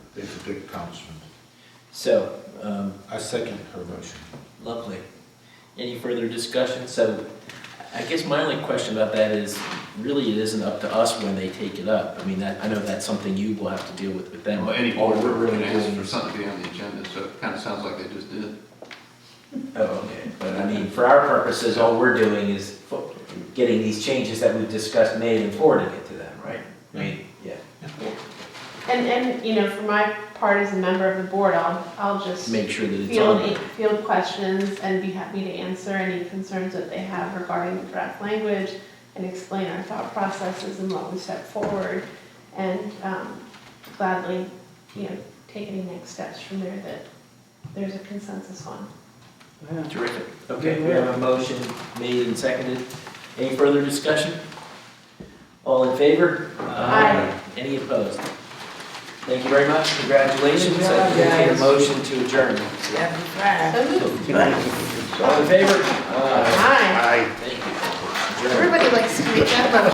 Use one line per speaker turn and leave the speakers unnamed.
It's a big accomplishment.
So, um,
I second her motion.
lovely. Any further discussion? So, I guess my only question about that is, really, it isn't up to us when they take it up. I mean, that, I know that's something you will have to deal with with them.
Well, any
Or
board
we're
really
really
asked for
doing.
something to be on the agenda, so it kind of sounds like they just did.
Oh, okay. But I mean, for our purposes, all we're doing is fo- getting these changes that we've discussed made and forwarding it to them, right? I mean, yeah,
And, and, you know, for my part as a member of the board, I'll, I'll just
make sure that it's on.
field, field questions and be happy to answer any concerns that they have regarding the draft language and explain our thought processes and what we set forward and um, gladly, you know, take any next steps from there that there's a consensus on.
Terrific. Okay, we have a motion made and seconded. Any further discussion? All in favor?
Aye.
Any opposed? Thank you very much, congratulations. I entertain a motion to adjourn.
So moved.
All in favor? Aye.
Aye.
Thank you. Adjourn.
Everybody likes to reach out about